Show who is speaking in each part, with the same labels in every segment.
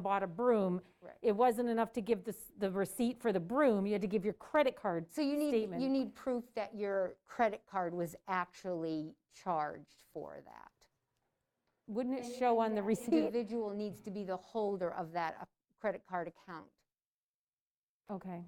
Speaker 1: bought a broom,
Speaker 2: Right.
Speaker 1: it wasn't enough to give the, s- the receipt for the broom, you had to give your credit card
Speaker 2: So you need,
Speaker 1: statement.
Speaker 2: you need proof that your credit card was actually charged for that.
Speaker 1: Wouldn't it show on the receipt?
Speaker 2: Individual needs to be the holder of that uh, credit card account.
Speaker 1: Okay,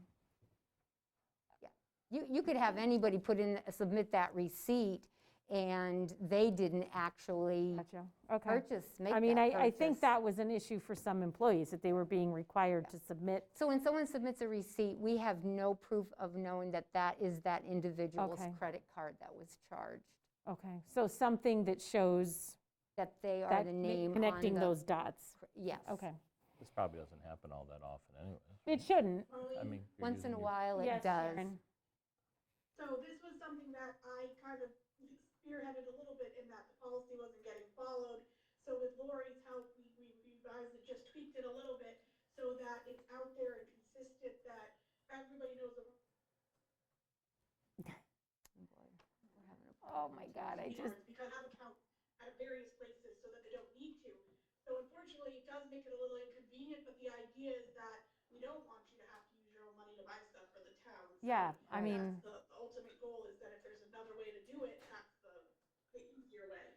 Speaker 2: You, you could have anybody put in, submit that receipt, and they didn't actually
Speaker 1: gotcha, okay.
Speaker 2: purchase, make
Speaker 1: I mean, I,
Speaker 2: that
Speaker 1: I think
Speaker 2: purchase.
Speaker 1: that was an issue for some employees, that they were being required to submit.
Speaker 2: So when someone submits a receipt, we have no proof of knowing that that is that individual's
Speaker 1: Okay.
Speaker 2: credit card that was charged,
Speaker 1: Okay, so something that shows
Speaker 2: that they are
Speaker 1: that,
Speaker 2: the
Speaker 1: ma-
Speaker 2: name on the.
Speaker 1: connecting those dots.
Speaker 2: cr- Yes.
Speaker 1: Okay,
Speaker 3: This probably doesn't happen all that often anyway.
Speaker 1: it shouldn't.
Speaker 3: I mean, you're
Speaker 2: Once in
Speaker 3: using
Speaker 2: a
Speaker 3: your-
Speaker 2: while, it
Speaker 1: Yes,
Speaker 2: does.
Speaker 1: Sharon.
Speaker 4: So this was something that I kind of spearheaded a little bit in that the policy wasn't getting followed. So with Lori's help, we, we revised it, just tweaked it a little bit so that it's out there and consistent that everybody knows the
Speaker 2: We're having a problem. Oh, my God, I just,
Speaker 4: cards Because I have accounts at various places so that they don't need to. So unfortunately, it does make it a little inconvenient, but the idea is that we don't want you to have to use your own money to buy stuff for the town. So
Speaker 1: Yeah, I
Speaker 2: Right.
Speaker 1: mean,
Speaker 4: That's the the ultimate goal is that if there's another way to do it, that's the, the easier way.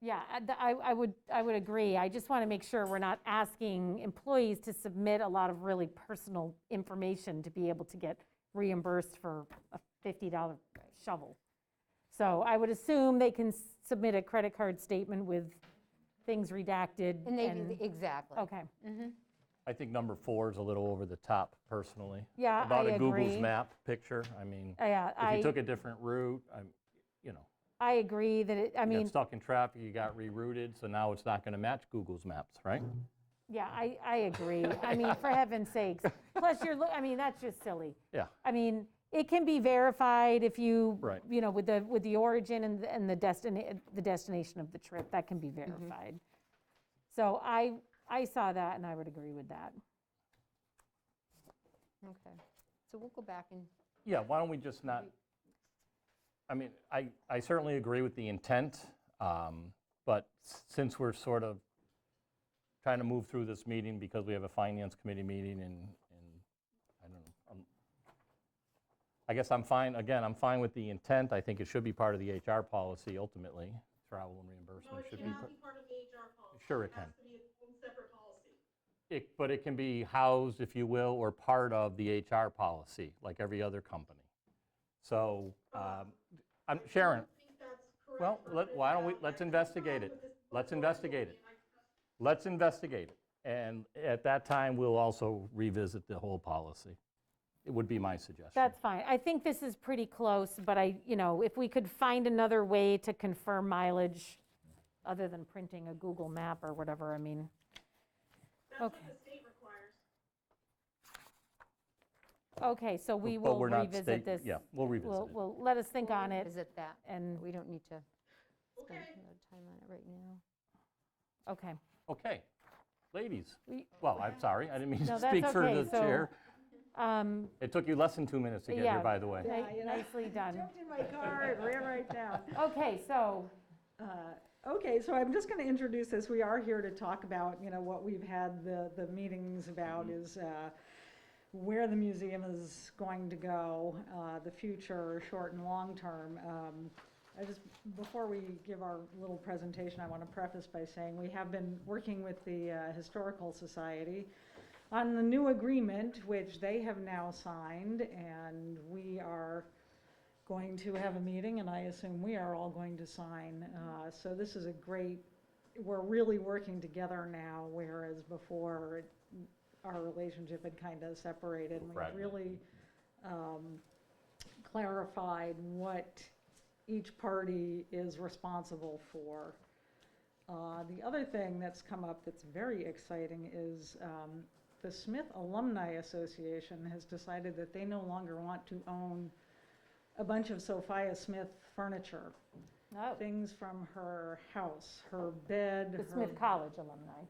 Speaker 1: yeah, I- the- I, I would, I would agree. I just want to make sure we're not asking employees to submit a lot of really personal information to be able to get reimbursed for a $50 shovel. So I would assume they can s- submit a credit card statement with things redacted
Speaker 2: and Oh. they, do
Speaker 1: and,
Speaker 2: the- exactly.
Speaker 1: okay.
Speaker 3: I think number four is a little over the top personally.
Speaker 1: Yeah,
Speaker 3: About
Speaker 1: I
Speaker 3: a Google's
Speaker 1: agree. Uh,
Speaker 3: map picture, I mean,
Speaker 1: Yeah,
Speaker 3: if you
Speaker 1: I,
Speaker 3: took a different route, I'm, you know,
Speaker 1: I agree that it, I
Speaker 3: you got
Speaker 1: mean,
Speaker 3: stuck in traffic, you got rerouted, so now it's not going to match Google's maps, right?
Speaker 1: yeah, I, I agree. I mean, for heaven's sakes. Plus, you're, loo- I mean, that's just silly.
Speaker 3: Yeah,
Speaker 1: I mean, it can be verified if you,
Speaker 3: Right.
Speaker 1: you know, with the, with the origin and, the- and the destination, the destination of the trip, that can be
Speaker 5: Mm-hmm.
Speaker 1: verified. So I, I saw that and I would agree with that.
Speaker 2: Okay. So we'll go back and,
Speaker 3: yeah, why don't we just not, I mean, I, I certainly agree with the intent, um, but s- since we're sort of trying to move through this meeting because we have a finance committee meeting and, and, I don't know, I'm- I guess I'm fine, again, I'm fine with the intent, I think it should be part of the HR policy ultimately, travel and
Speaker 4: No,
Speaker 3: reimbursement
Speaker 4: it
Speaker 3: should be.
Speaker 4: cannot be part of the HR policy.
Speaker 3: Sure it
Speaker 4: has
Speaker 3: can.
Speaker 4: to be its own separate policy.
Speaker 3: It, but it can be housed, if you will, or part of the HR policy, like every other company. So, um, I'm, Sharon,
Speaker 4: I think that's correct
Speaker 3: Well,
Speaker 4: for
Speaker 3: let-
Speaker 4: right
Speaker 3: why don't we-
Speaker 4: now.
Speaker 3: let's
Speaker 4: I- I'm
Speaker 3: investigate
Speaker 4: fine
Speaker 3: it.
Speaker 4: with this
Speaker 3: Let's
Speaker 4: proposal,
Speaker 3: investigate it.
Speaker 4: and I-
Speaker 3: let's investigate it. And at that time, we'll also revisit the whole policy. It would be my suggestion.
Speaker 1: That's fine. I think this is pretty close, but I, you know, if we could find another way to confirm mileage other than printing a Google map or whatever, I mean,
Speaker 4: That's what
Speaker 1: Okay.
Speaker 4: the state requires.
Speaker 1: okay, so we
Speaker 3: But
Speaker 1: will
Speaker 3: we're not
Speaker 1: revisit
Speaker 3: state-
Speaker 1: this.
Speaker 3: Yeah, we'll revisit
Speaker 1: We'll,
Speaker 3: it.
Speaker 1: we'll, let us think on it
Speaker 2: visit that.
Speaker 1: and,
Speaker 2: We don't need to spend
Speaker 4: Okay.
Speaker 2: a lot of time on it right now.
Speaker 1: okay.
Speaker 3: Okay, ladies,
Speaker 1: We-
Speaker 3: well, I'm sorry, I didn't mean
Speaker 1: No,
Speaker 3: to
Speaker 1: that's
Speaker 3: speak for
Speaker 1: okay.
Speaker 3: the
Speaker 1: So,
Speaker 3: chair.
Speaker 1: um,
Speaker 3: It took you less than two minutes to get
Speaker 1: yeah,
Speaker 3: here, by the way.
Speaker 1: ni-
Speaker 5: Yeah, you know.
Speaker 1: Nicely done.
Speaker 5: Jumped in my car and ran right down.
Speaker 1: Okay, so,
Speaker 5: Uh, Okay, so I'm just going to introduce this. We are here to talk about, you know, what we've had the, the meetings about is uh, where the museum is going to go, uh, the future, short and long term. Um, I just, before we give our little presentation, I want to preface by saying we have been working with the uh, Historical Society on the new agreement, which they have now signed, and we are going to have a meeting, and I assume we are all going to sign. Uh, So this is a great, we're really working together now, whereas before, it- our relationship had kind of separated. and
Speaker 3: Right.
Speaker 5: We really um, clarified what each party is responsible for. Uh, The other thing that's come up that's very exciting is um, the Smith Alumni Association has decided that they no longer want to own a bunch of Sophia Smith furniture,
Speaker 1: oh,
Speaker 5: things from her house, her bed,
Speaker 1: the
Speaker 5: her
Speaker 1: Smith College alumni.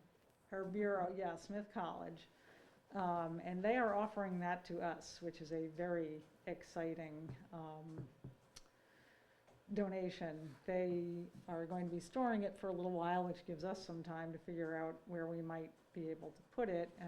Speaker 5: her bureau, yeah, Smith College. Um, And they are offering that to us, which is a very exciting um, donation. They are going to be storing it for a little while, which gives us some time to figure out where we might be able to put it.